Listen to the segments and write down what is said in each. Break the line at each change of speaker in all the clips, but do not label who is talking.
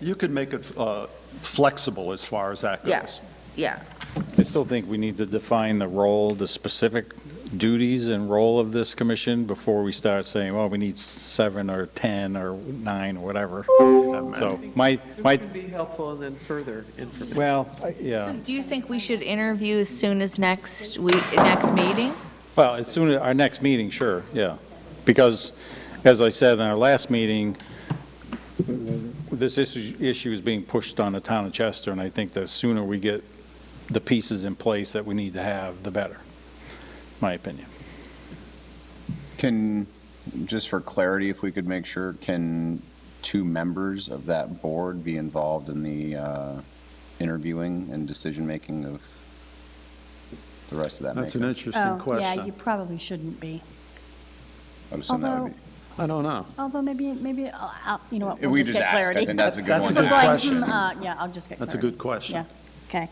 You could make it uh, flexible as far as that
Yeah,
goes.
yeah.
I still think we need to define the role, the specific duties and role of this commission before we start saying, well, we need seven or 10 or nine or whatever. So my, my,
It would be helpful and then further information.
well, I-
So
yeah,
do you think we should interview as soon as next week, next meeting?
well, as soon as, our next meeting, sure, yeah. Because, as I said in our last meeting, this issue, issue is being pushed on the town of Chester, and I think the sooner we get the pieces in place that we need to have, the better, my opinion.
Can, just for clarity, if we could make sure, can two members of that board be involved in the uh, interviewing and decision-making of the rest of that
That's an
makeup?
interesting
Oh, Yeah, you
question.
probably shouldn't be.
I would assume that would
although-
be-
I don't know.
Although maybe, maybe, I'll- I'll- you know what,
If
we'll
we
just
just
get
ask, I
clarity.
think that's a good
That's
one
a
to
People
good
going,
ask.
question.
"Hmm, uh, Yeah, I'll just get
That's a
clarity."
good question.
Yeah, okay.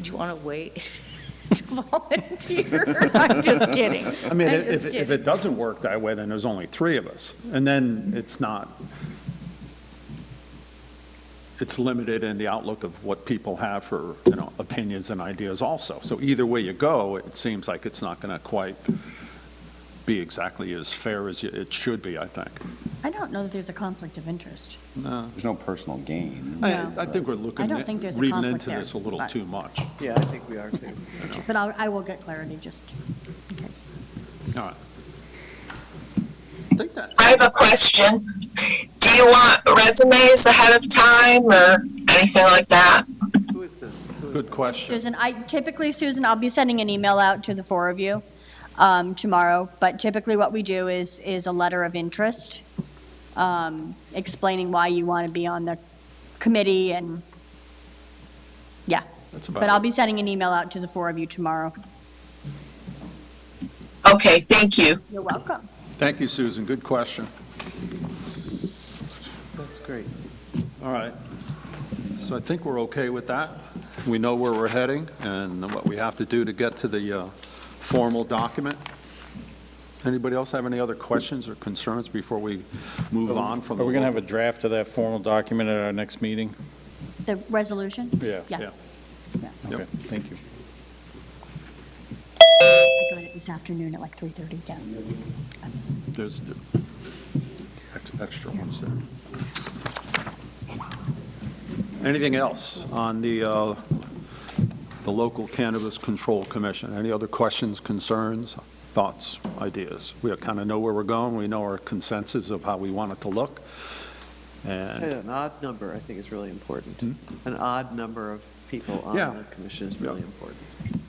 Do you want to wait to volunteer? I'm just kidding.
I mean,
I'm
if,
just
if
kidding.
it doesn't work that way, then there's only three of us, and then it's not, it's limited in the outlook of what people have for, you know, opinions and ideas also. So either way you go, it seems like it's not going to quite be exactly as fair as you- it should be, I think.
I don't know that there's a conflict of interest.
There's no personal gain.
I,
No.
I think we're looking,
don't think there's a
reading
conflict
into
there,
this a little
but-
too much.
Yeah, I think we are too.
But I'll, I will get clarity, just in case.
All right. I think that's,
I have a question. Do you want resumes ahead of time or anything like that?
Who is this? Who-
good question.
Susan, I, typically, Susan, I'll be sending an email out to the four of you um, tomorrow, but typically what we do is, is a letter of interest, um, explaining why you want to be on the committee and, yeah.
That's about
But I'll
it.
be sending an email out to the four of you tomorrow.
Okay, thank you.
You're welcome.
Thank you, Susan, good question.
That's great.
All right. So I think we're okay with that. We know where we're heading and what we have to do to get to the uh, formal document. Anybody else have any other questions or concerns before we move on from?
Are we going to have a
the-
draft of that formal document at our next meeting?
The resolution?
Yeah.
Yeah,
Yeah.
Okay, thank you.
I got it this afternoon at like 3:30, yes.
There's the ex- extra ones there. Anything else on the, uh, the local cannabis control commission? Any other questions, concerns, thoughts, ideas? We kind of know where we're going, we know our consensus of how we want it to look,
And
and,
An odd number, I think, is really important. An odd number of people on
Hmm? Yeah.
the commission is
Yeah.
really important.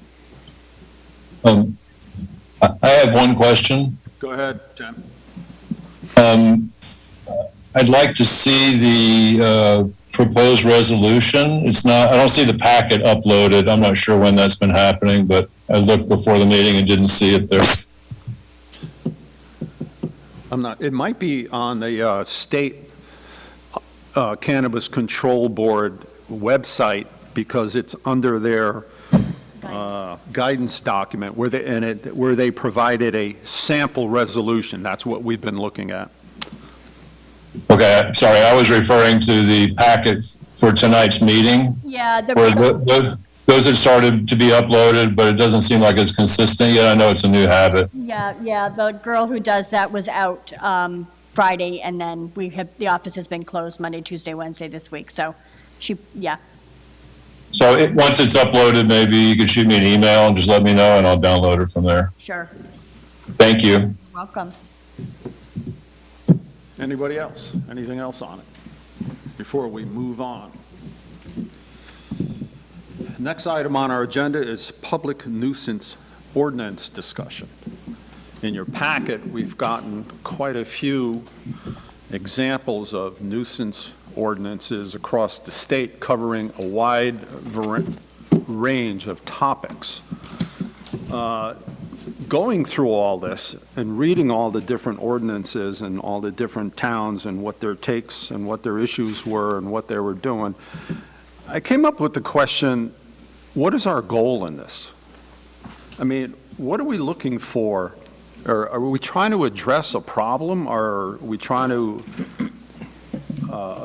Um, I I have one question.
go ahead, Jen.
I'd like to see the uh, proposed resolution. It's not, I don't see the packet uploaded. I'm not sure when that's been happening, but I looked before the meeting and didn't see it there.
I'm not, it might be on the uh, State uh, Cannabis Control Board website, because it's under their uh, guidance document, where they, and it, where they provided a sample resolution, that's what we've been looking at.
Okay, sorry, I was referring to the packet for tonight's meeting,
Yeah,
where
the,
tho- tho- those had started to be uploaded, but it doesn't seem like it's consistent yet. I know it's a new habit.
yeah, yeah, the girl who does that was out um, Friday, and then we have, the office has been closed Monday, Tuesday, Wednesday this week, so she, yeah.
So it- once it's uploaded, maybe you could shoot me an email and just let me know, and I'll download it from there.
Sure.
Thank you.
Welcome.
Anybody else? Anything else on it? Before we move on. Next item on our agenda is public nuisance ordinance discussion. In your packet, we've gotten quite a few examples of nuisance ordinances across the state covering a wide var- range of topics going through all this and reading all the different ordinances and all the different towns and what their takes and what their issues were and what they were doing, I came up with the question, what is our goal in this? I mean, what are we looking for? Or are we trying to address a problem? Or are we trying to